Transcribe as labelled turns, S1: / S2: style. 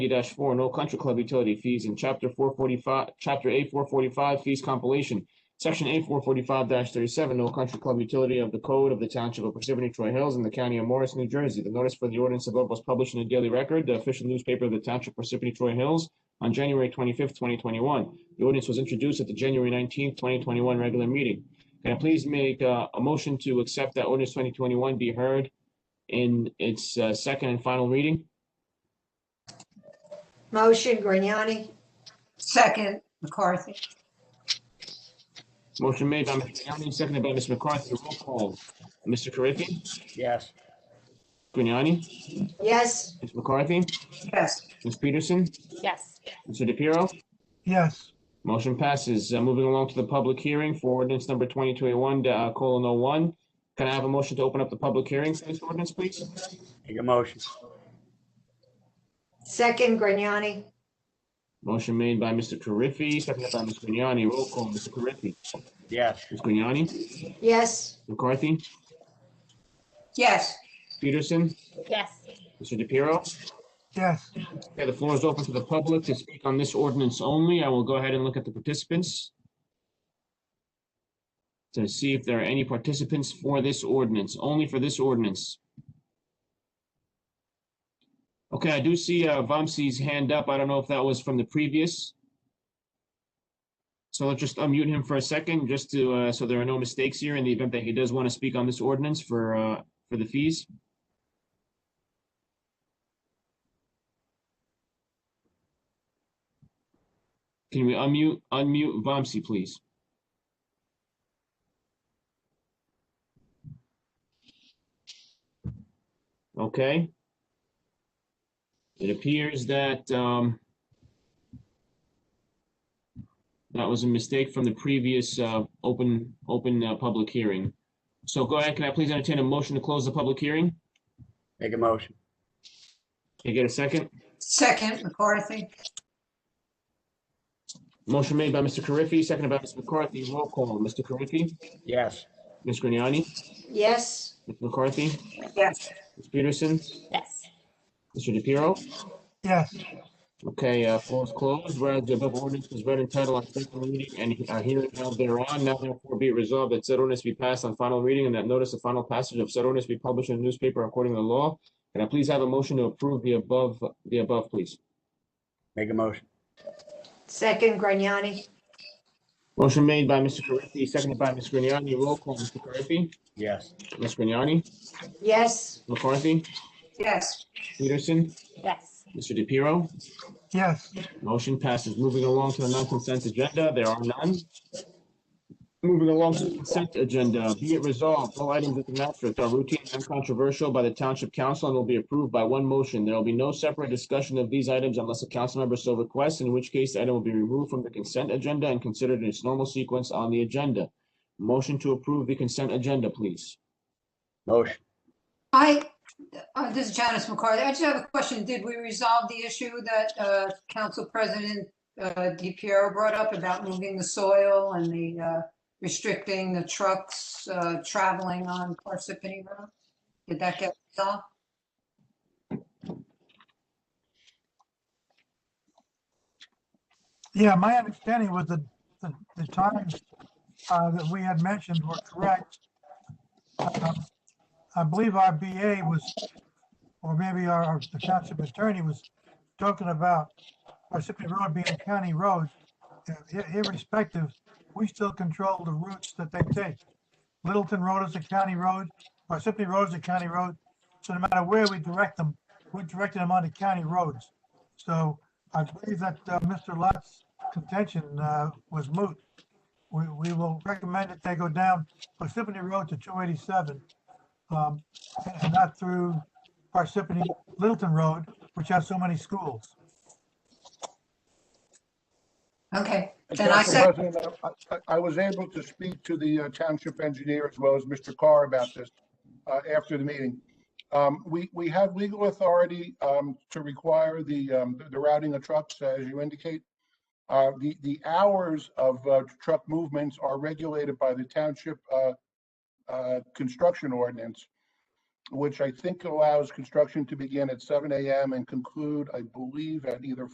S1: four, no country club utility fees in chapter four forty-five, chapter A four forty-five fees compilation. Section A four forty-five thirty-seven, no country club utility of the code of the township of Parsippany Troy Hills in the county of Morris, New Jersey. The notice for the ordinance above was published in the Daily Record, the official newspaper of the township of Parsippany Troy Hills on January twenty-fifth, twenty twenty-one. The ordinance was introduced at the January nineteenth, twenty twenty-one regular meeting. Can I please make uh, a motion to accept that ordinance twenty twenty-one be heard in its uh, second and final reading?
S2: Motion, Grignani. Second, McCarthy.
S1: Motion made by Mr. Grignani, seconded by Ms. McCarthy. Roll call. Mr. Carriffy?
S3: yes,
S1: Grignani?
S2: Yes?
S1: Ms. McCarthy?
S2: Yes.
S1: Ms. Peterson?
S4: yes,
S1: Mr. DePiero?
S5: yes,
S1: Motion passes. Uh, Moving along to the public hearing for ordinance number 2021, uh, colon, 01. Can I have a motion to open up the public hearing for this ordinance, please?
S3: make a motion,
S2: Second, Grignani.
S1: Motion made by Mr. Carriffy, seconded by Ms. Grignani. Roll call. Mr. Carriffy?
S3: yes,
S1: Ms. Grignani?
S2: Yes?
S1: McCarthy?
S2: Yes.
S1: Peterson?
S4: yes,
S1: Mr. DePiero?
S5: yes,
S1: Okay, the floor is open to the public to speak on this ordinance only. I will go ahead and look at the participants to see if there are any participants for this ordinance, only for this ordinance. Okay, I do see uh, Vamsi's hand up. I don't know if that was from the previous. So let's just unmute him for a second, just to, uh, so there are no mistakes here in the event that he does want to speak on this ordinance for, uh, for the fees. Can we unmute, unmute Vamsi, please? Okay. It appears that, um, that was a mistake from the previous, uh, open, open, uh, public hearing. So go ahead, can I please entertain a motion to close the public hearing?
S3: make a motion,
S1: Can I get a second?
S2: Second, McCarthy.
S1: Motion made by Mr. Carriffy, seconded by Ms. McCarthy. Roll call, Mr. Carriffy,
S3: yes,
S1: Ms. Grignani,
S2: Yes?
S1: Ms. McCarthy,
S2: Yes.
S1: Ms. Peterson,
S4: yes,
S1: Mr. DePiero?
S5: yes,
S1: Okay, uh, floor is closed. Whereas the above ordinance was read in title on second reading and uh, hearing held thereon, now therefore be it resolved that said ordinance be passed on final reading and that notice of final passage of said ordinance be published in the newspaper according to the law. Can I please have a motion to approve the above, the above, please?
S3: make a motion,
S2: Second, Grignani.
S1: Motion made by Mr. Carriffy, seconded by Ms. Grignani. Roll call, Mr. Carriffy,
S3: yes,
S1: Ms. Grignani,
S2: Yes?
S1: McCarthy,
S2: Yes.
S1: Peterson,
S4: yes,
S1: Mr. DePiero.
S5: yes,
S1: Motion passes. Moving along to the non-consent agenda, there are none. Moving along to the consent agenda, be it resolved, all items of the matrix are routine and controversial by the Township Council and will be approved by one motion. There will be no separate discussion of these items unless a council member so requests, in which case the item will be removed from the consent agenda and considered in its normal sequence on the agenda. Motion to approve the consent agenda, please.
S3: motion,
S6: I, uh, this is Janice McCarthy. I just have a question. Did we resolve the issue that uh, Council President uh, DiPiero brought up about moving the soil and the uh, restricting the trucks uh, traveling on Parsippany Road? Did that get resolved?
S5: yeah, my understanding was that the, the times, uh, that we had mentioned were correct. Um, I believe our BA was, or maybe our, our- the township attorney was talking about Parsippany Road being a county road. Uh, ir- Irrespective, we still control the routes that they take. Littleton Road is a county road, Parsippany Road is a county road, so no matter where we direct them, we're directing them onto county roads. So I believe that uh, Mr. Lott's contention uh, was moot. We, we will recommend that they go down Parsippany Road to 287, um, and and not through Parsippany Littleton Road, which has so many schools.
S6: Okay, then I
S7: Council
S6: said,
S7: President, I- I I was able to speak to the uh, township engineer as well as Mr. Carr about this uh, after the meeting. Um, We, we have legal authority um, to require the, um, the routing of trucks, as you indicate. Uh, The, the hours of uh, truck movements are regulated by the township uh, uh, construction ordinance. which I think allows construction to begin at seven AM and conclude, I believe, at either